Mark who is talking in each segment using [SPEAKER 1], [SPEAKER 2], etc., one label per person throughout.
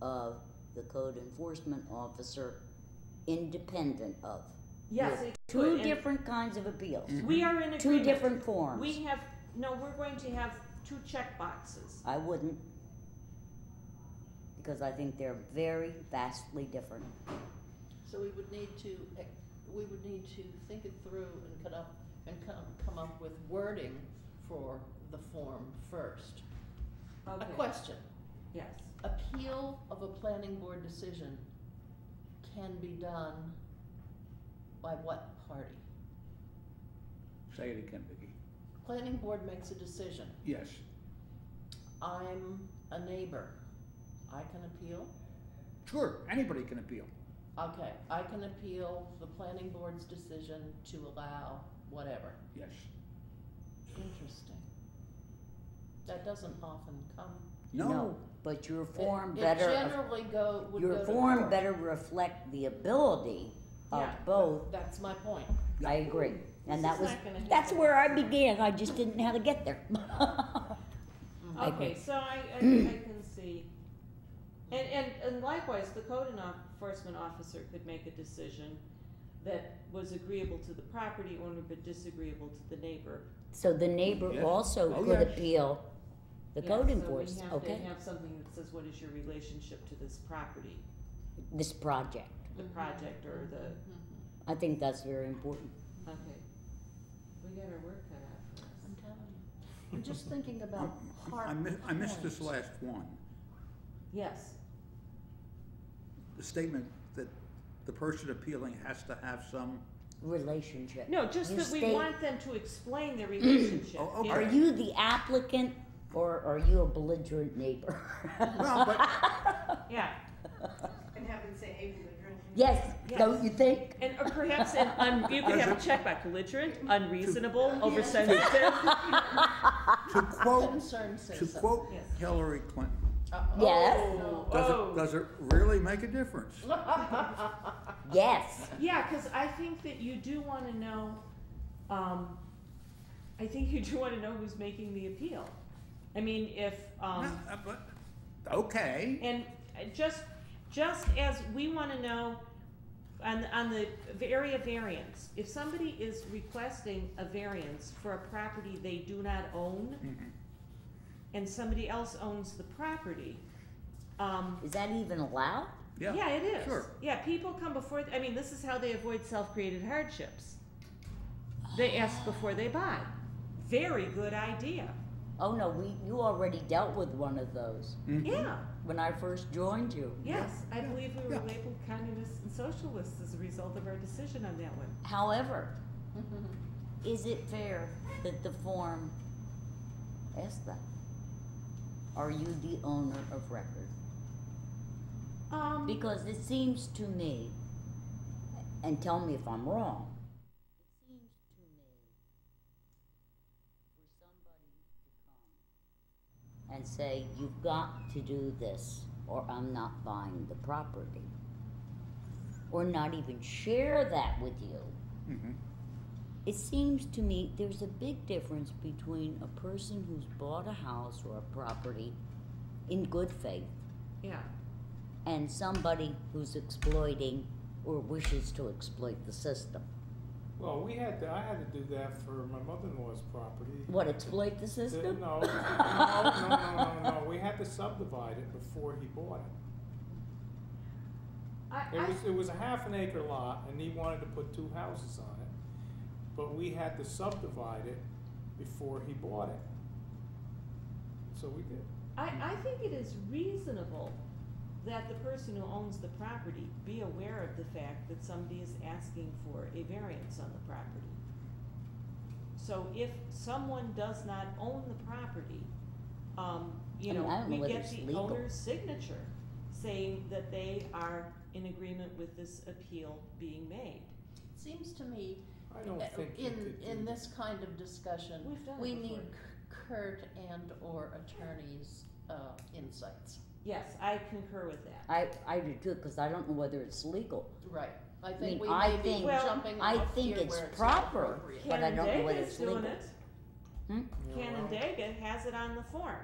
[SPEAKER 1] of the code enforcement officer independent of.
[SPEAKER 2] Yes,
[SPEAKER 1] With
[SPEAKER 2] it could,
[SPEAKER 1] Two
[SPEAKER 2] and
[SPEAKER 1] different kinds of appeals,
[SPEAKER 2] We are in agreement.
[SPEAKER 1] two different forms.
[SPEAKER 2] We have, no, we're going to have two check boxes.
[SPEAKER 1] I wouldn't. Because I think they're very vastly different.
[SPEAKER 3] So we would need to, ex- we would need to think it through and cut up, and come, come up with wording for the form first. A question,
[SPEAKER 2] Yes.
[SPEAKER 3] appeal of a planning board decision can be done by what party?
[SPEAKER 4] Say it again, Vicki.
[SPEAKER 3] Planning board makes a decision,
[SPEAKER 4] Yes,
[SPEAKER 3] I'm a neighbor, I can appeal?
[SPEAKER 4] sure, anybody can appeal.
[SPEAKER 3] Okay, I can appeal the planning board's decision to allow whatever.
[SPEAKER 4] Yes,
[SPEAKER 3] Interesting. That doesn't often come.
[SPEAKER 4] no,
[SPEAKER 1] But your
[SPEAKER 3] It-
[SPEAKER 1] form
[SPEAKER 3] it
[SPEAKER 1] better,
[SPEAKER 3] generally go, would go
[SPEAKER 1] your
[SPEAKER 3] to
[SPEAKER 1] form
[SPEAKER 3] court.
[SPEAKER 1] better reflect the ability of
[SPEAKER 2] Yeah, but-
[SPEAKER 1] both,
[SPEAKER 3] That's my point.
[SPEAKER 1] I agree.
[SPEAKER 2] This
[SPEAKER 1] And that
[SPEAKER 2] is
[SPEAKER 1] was,
[SPEAKER 2] not gonna
[SPEAKER 1] that's
[SPEAKER 2] happen.
[SPEAKER 1] where I began, I just didn't know how to get there. I
[SPEAKER 2] Okay, so I, I, I can see. And, and, and likewise, the code enforcement officer could make a decision that was agreeable to the property owner but disagreeable to the neighbor.
[SPEAKER 1] So the neighbor
[SPEAKER 4] Yes.
[SPEAKER 1] also
[SPEAKER 4] Oh,
[SPEAKER 1] could
[SPEAKER 4] yes.
[SPEAKER 1] appeal the code
[SPEAKER 2] enforcement.
[SPEAKER 1] enforcement, okay,
[SPEAKER 2] So we have to have something that says, what is your relationship to this property,
[SPEAKER 1] this project.
[SPEAKER 2] the project or the,
[SPEAKER 3] Mhm.
[SPEAKER 1] I think that's very important.
[SPEAKER 2] okay. We got our work cut out for us.
[SPEAKER 3] I'm telling you. I'm just thinking about
[SPEAKER 4] Um,
[SPEAKER 3] hard.
[SPEAKER 4] I mi- I missed this
[SPEAKER 3] points.
[SPEAKER 4] last one,
[SPEAKER 2] Yes,
[SPEAKER 4] the statement that the person appealing has to have some,
[SPEAKER 1] Relationship.
[SPEAKER 2] no, just
[SPEAKER 1] You
[SPEAKER 2] that we
[SPEAKER 1] state-
[SPEAKER 2] want them to explain their relationship.
[SPEAKER 4] Oh, okay.
[SPEAKER 1] Are you the applicant or are you a belligerent neighbor?
[SPEAKER 4] well, but,
[SPEAKER 2] Yeah,
[SPEAKER 5] And have them say able to drink.
[SPEAKER 1] Yes, don't
[SPEAKER 2] Yes.
[SPEAKER 1] you think?
[SPEAKER 2] and or perhaps an un, you could have a checkback, belligerent, unreasonable, oversensitive.
[SPEAKER 4] to quote,
[SPEAKER 3] Concerned
[SPEAKER 4] to
[SPEAKER 3] citizen.
[SPEAKER 4] quote
[SPEAKER 2] Yes.
[SPEAKER 4] Hillary Clinton,
[SPEAKER 3] Uh, oh,
[SPEAKER 1] Yes.
[SPEAKER 3] no.
[SPEAKER 4] does
[SPEAKER 2] Oh.
[SPEAKER 4] it, does it really make a difference?
[SPEAKER 1] Yes.
[SPEAKER 2] Yeah, because I think that you do want to know, um, I think you do want to know who's making the appeal. I mean, if,
[SPEAKER 4] No,
[SPEAKER 2] um,
[SPEAKER 4] uh, but, okay,
[SPEAKER 2] and just, just as we want to know on, on the area variance, if somebody is requesting a variance for a property they do not own
[SPEAKER 4] Mhm.
[SPEAKER 2] and somebody else owns the property, um,
[SPEAKER 1] Is that even allowed?
[SPEAKER 2] yeah, it is.
[SPEAKER 4] sure.
[SPEAKER 2] Yeah, people come before, I mean, this is how they avoid self-created hardships. They ask before they buy. Very good idea.
[SPEAKER 1] Oh no, we you already dealt with one of those
[SPEAKER 4] Mhm.
[SPEAKER 2] Yeah,
[SPEAKER 1] when I first joined you.
[SPEAKER 2] yes, I believe we were
[SPEAKER 4] yeah.
[SPEAKER 2] labeled communists and socialists as a result of our decision on that one.
[SPEAKER 1] However, is it fair that the form asks that? Are you the owner of record?
[SPEAKER 2] Um,
[SPEAKER 1] Because it seems to me, and tell me if I'm wrong, it seems to me for somebody to come and say, you've got to do this, or I'm not buying the property, or not even share that with you.
[SPEAKER 4] Mhm.
[SPEAKER 1] It seems to me there's a big difference between a person who's bought a house or a property in good faith
[SPEAKER 2] yeah,
[SPEAKER 1] and somebody who's exploiting or wishes to exploit the system.
[SPEAKER 6] Well, we had to, I had to do that for my mother-in-law's property.
[SPEAKER 1] What, exploit the
[SPEAKER 6] The-
[SPEAKER 1] system?
[SPEAKER 6] Uh, No, no, no, no, no, no, we had to subdivide it before he bought it.
[SPEAKER 2] I,
[SPEAKER 6] It
[SPEAKER 2] I,
[SPEAKER 6] was, it was a half an acre lot and he wanted to put two houses on it, but we had to subdivide it before he bought it. So we did.
[SPEAKER 2] I, I think it is reasonable that the person who owns the property be aware of the fact that somebody is asking for a variance on the property. So if someone does not own the property, um, you
[SPEAKER 1] I mean, I
[SPEAKER 2] know,
[SPEAKER 1] don't know
[SPEAKER 2] we
[SPEAKER 1] whether
[SPEAKER 2] get
[SPEAKER 1] it's
[SPEAKER 2] the
[SPEAKER 1] legal.
[SPEAKER 2] owner's signature saying that they are in agreement with this appeal being made.
[SPEAKER 3] Seems to me,
[SPEAKER 6] I don't
[SPEAKER 3] uh,
[SPEAKER 6] think you
[SPEAKER 3] in,
[SPEAKER 6] could do
[SPEAKER 3] in
[SPEAKER 6] that.
[SPEAKER 3] this kind of discussion,
[SPEAKER 2] We've done it
[SPEAKER 3] we
[SPEAKER 2] before.
[SPEAKER 3] need Kurt and/or attorneys' uh, insights.
[SPEAKER 2] Yes, I concur with that.
[SPEAKER 1] I, I do too, because I don't know whether it's legal.
[SPEAKER 3] Right, I
[SPEAKER 1] mean,
[SPEAKER 3] think we
[SPEAKER 1] I
[SPEAKER 3] may be
[SPEAKER 1] think-
[SPEAKER 2] Well,
[SPEAKER 3] jumping
[SPEAKER 1] I
[SPEAKER 3] off
[SPEAKER 1] think
[SPEAKER 3] here
[SPEAKER 1] it's
[SPEAKER 3] where it's
[SPEAKER 1] proper.
[SPEAKER 3] proper.
[SPEAKER 1] But I don't know whether it's
[SPEAKER 2] Canandaigua is doing
[SPEAKER 1] legal.
[SPEAKER 2] it.
[SPEAKER 6] Yeah, well,
[SPEAKER 2] Canandaigua has it on the form.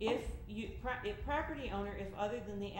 [SPEAKER 2] If you, pro- if property owner, if other than the